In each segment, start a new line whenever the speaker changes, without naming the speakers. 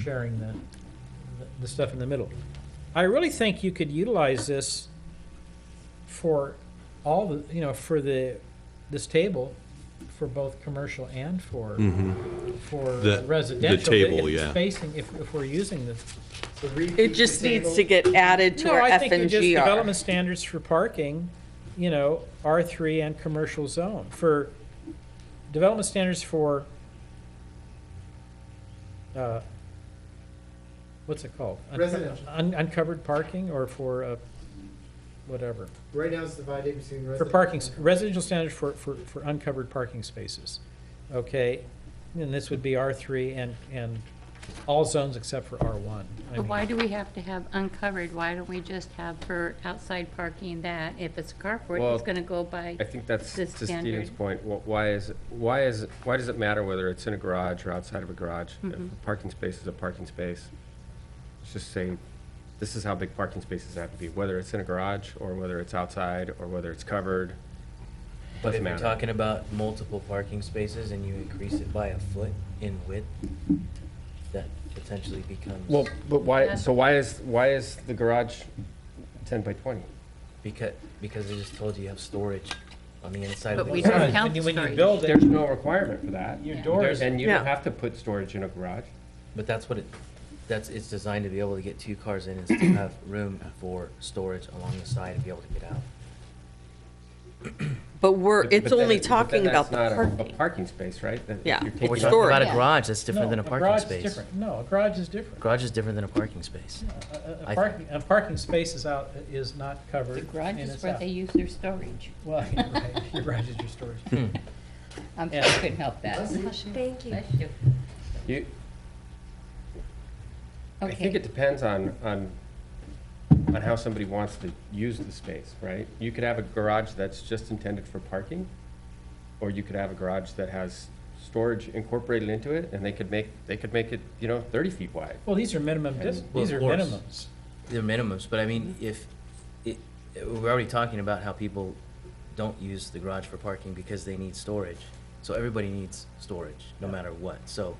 sharing the, the stuff in the middle. I really think you could utilize this for all the, you know, for the, this table, for both commercial and for, for
Mm-hmm. The- the
residential. but
table,
if it's
yeah.
Facing, if, if we're using the. the repeat
It just needs to
table.
get added to
No,
our
I
F
think you
and
just
G R.
development standards for parking, you know, R three and commercial zone, for development standards for, uh, what's it called? Unco-
Residential.
un- Uncovered parking or for, uh, whatever,
Right now it's divided between residential.
for parking, s- residential standards for, for, for uncovered parking spaces, okay? And this would be R three and, and all zones except for R one.
But why do we have to have uncovered? Why don't we just have for outside parking that if it's a carport,
Well,
it's gonna go by?
I think that's
The
to Stephen's
standard.
point. Wh- Why is, why is, why does it matter whether it's in a garage or outside of a garage? If a parking space is a parking space, let's just say, this is how big parking spaces have to be, whether it's in a garage or whether it's outside or whether it's covered.
But
Doesn't
if you're
matter.
talking about multiple parking spaces and you increase it by a foot in width, that potentially becomes.
Well, but why,
That's-
so why is, why is the garage ten by twenty?
Because, because I just told you you have storage on the inside
But
of the.
we
garage.
don't count
When you
storage.
build it,
There's no requirement for that.
your
Yeah.
door is.
And you
Yeah.
don't have to put storage in a garage.
But that's what it, that's, it's designed to be able to get two cars in and still have room for storage along the side and be able to get out.
But we're,
But-
it's
but then
only
it- but then
talking about
that's
the
not a-
parking.
A parking space, right? That-
Yeah.
you're
But
taking
we're
Storage.
up-
talking about a
Yeah.
garage, that's different than a
No,
parking
garage is
space.
different. No, a garage is different.
Garage is different than a parking space.
A- a-
I
A
think.
parking, a parking space is out, is not covered.
The garage
and
is
it's
where
out.
they use their storage.
Well, you're right, your garage is your storage.
Hmm.
I'm
Yeah.
sure I couldn't help that.
Thank you.
Bless you.
You, I think
Okay,
it depends on, on, on how somebody wants to use the space, right? You could have a garage that's just intended for parking, or you could have a garage that has storage incorporated into it, and they could make, they could make it, you know, thirty feet wide.
Well, these are minimum, dis-
Well,
these
of
are
course.
minimums.
They're minimums, but I mean, if, it, we're already talking about how people don't use the garage for parking because they need storage. So everybody needs storage, no matter what, so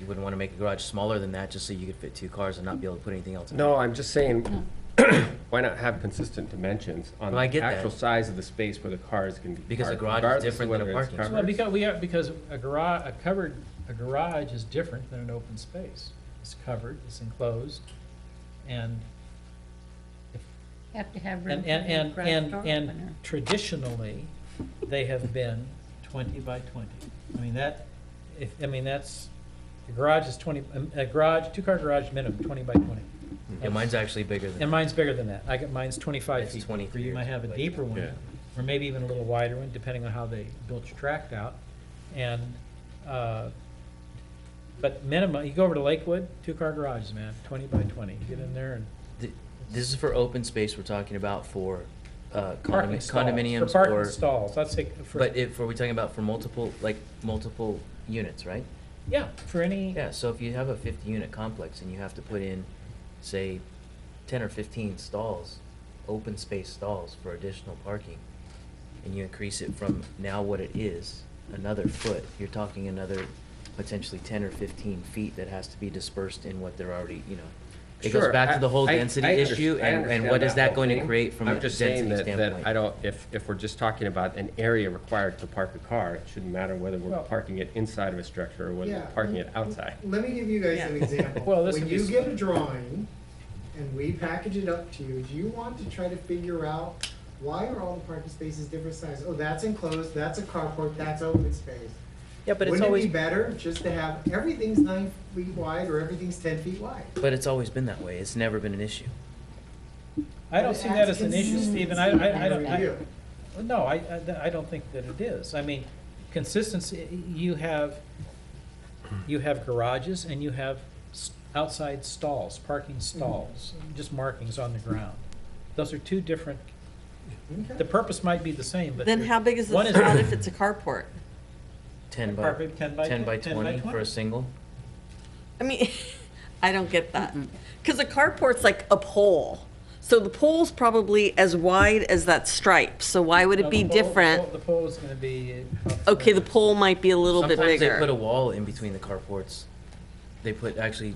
you wouldn't wanna make a garage smaller than that just so you could fit two cars and not be able to put anything else in it.
No, I'm just saying, why not have consistent dimensions on
Well, I
the
get that.
actual size of the space where the cars can be
Because a
parked,
garage is
regardless of
different than a
whether it's
parking
covered.
space.
Well, because we have, because a garage, a covered, a garage is different than an open space. It's covered, it's enclosed, and,
have to have room
and,
for the
and,
garage
and,
door opener.
and traditionally, they have been twenty by twenty. I mean, that, if, I mean, that's, a garage is twenty, um, a garage, two-car garage minimum, twenty by twenty.
Yeah, mine's actually bigger than
And
that.
mine's bigger than that. I got, mine's 25
It's
feet.
23
You
or
might have a
something like
deeper
that.
one, or maybe even a little wider one, depending on how they built your tract out. And, uh, but minimum, you go over to Lakewood, two-car garages, man, 20 by 20. Get in there and
Th- This is for open space we're talking about for uh,
parking
condomin-
stalls.
condominiums or.
For parking stalls, that's it. for-
But if, are we talking about for multiple, like, multiple units, right?
Yeah, for any,
Yeah, so if you have a fifty-unit complex and you have to put in, say, ten or fifteen stalls, open space stalls for additional parking, and you increase it from now what it is, another foot, you're talking another potentially ten or fifteen feet that has to be dispersed in what they're already, you know. It goes
Sure,
back
I-
to the whole
I-
density
I underst-
issue,
I
and, and
understand
what is that
whole
going to
thing.
create from a
I'm just saying
density
that-
standpoint?
That I don't, if, if we're just talking about an area required to park a car, it shouldn't matter whether we're
Well-
parking it inside of a structure or whether
Yeah.
we're parking it outside.
Let me give you guys an
Yeah.
example.
Well, this
When
would be
you
s-
get a drawing and we package it up to you, do you want to try to figure out why are all the parking spaces different size? Oh, that's enclosed, that's a carport, that's open space.
Yeah, but it's
Wouldn't it
always,
be better just to have everything's nine feet wide or everything's ten feet wide?
But it's always been that way, it's never been an issue.
I don't see that as an issue, Stephen. I, I, I don't, I,
Review.
No, I, I- I don't think that it is. I mean, consistency, you have, you have garages and you have s- outside stalls, parking stalls, just markings on the ground. Those are two different, the
Okay.
purpose might be the same, but.
then
they're-
how big is
one
the spot if it's a carport?
Ten by,
Perfect, 10 by
ten by
10 by
twenty for
20.
a single,
I mean, I don't get that. Because a carport's like a pole. So the pole's probably as wide as that stripe, so why would
No,
it be
the pole- the
different?
pole- The pole is gonna be. uh,
Okay, the pole might be a little bit
Sometimes they put a
bigger.
wall in between the carports they put actually